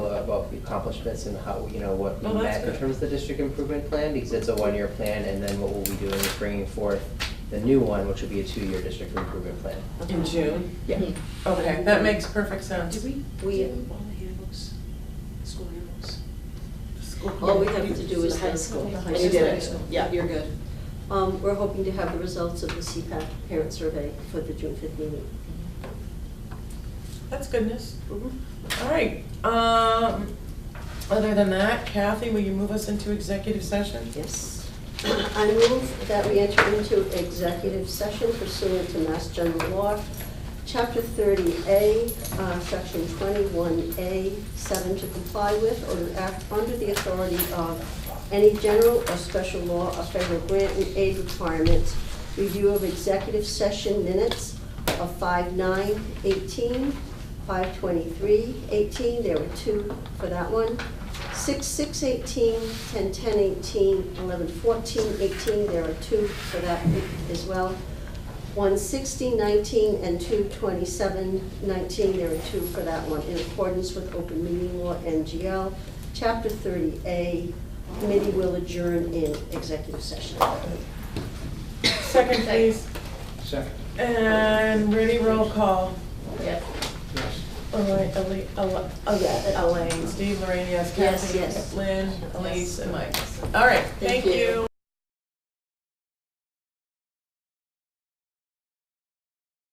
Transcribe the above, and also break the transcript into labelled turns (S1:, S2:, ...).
S1: the accomplishments and how, you know, what we
S2: Well, Oh, that's
S1: met in
S2: good.
S1: terms of the district improvement plan, because it's a one-year plan, and then what we'll be doing is bringing forth the new one, which will be a two-year district improvement plan.
S2: in June? Hmm.
S1: Yeah.
S2: Okay, that makes perfect sense.
S3: Do we, we,
S4: We, all the handbooks, school handbooks.
S3: all we have to do is the high school.
S4: The high
S3: And
S4: school.
S3: you did
S4: High
S3: it,
S4: school.
S3: yeah, you're good. Um, we're hoping to have the results of the CPAC parent survey for the June fifth meeting.
S2: That's good news.
S3: Mm-hmm.
S2: All right, um, other than that, Kathy, will you move us into executive session?
S3: Yes. I move that we enter into executive session pursuant to Mass General Law, Chapter 30A, uh, Section 21A, 7, to comply with or to act under the authority of any general or special law or federal grant and aid requirements, review of executive session minutes of 5/9/18, 5/23/18, there were two for that one, 6, 6, 18, 10, 10, 18, 11, 14, 18, there are two for that as well. 1, 16, 19, and 2, 27, 19, there are two for that one, in accordance with open meeting law, NGL, Chapter 30A, committee will adjourn in executive session.
S2: Second, please.
S5: Second.
S2: And ready, roll call.
S4: Yes.
S5: Yes.
S2: All right, Elaine, Elaine, Steve, Lorraine, yes,
S3: Yes,
S2: Kathy,
S3: yes.
S2: Lynn, Elise, and Mike. All right, thank
S4: you.
S2: you.